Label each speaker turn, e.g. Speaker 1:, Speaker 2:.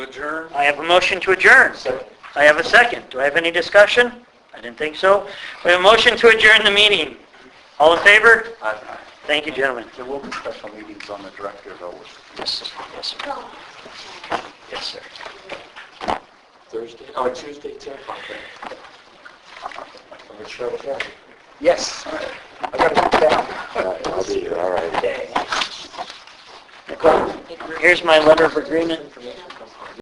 Speaker 1: Adjourn.
Speaker 2: I have a motion to adjourn. I have a second. Do I have any discussion? I didn't think so. We have a motion to adjourn the meeting. All in favor? Thank you, gentlemen.
Speaker 1: There will be special meetings on the director though,
Speaker 2: Yes, sir. Yes, sir. Yes, sir.
Speaker 1: Thursday, oh, Tuesday, 10 o'clock. right? I'm gonna show up there. Yes. I gotta get down.
Speaker 3: I'll be here, all right.
Speaker 2: Here's my letter of agreement.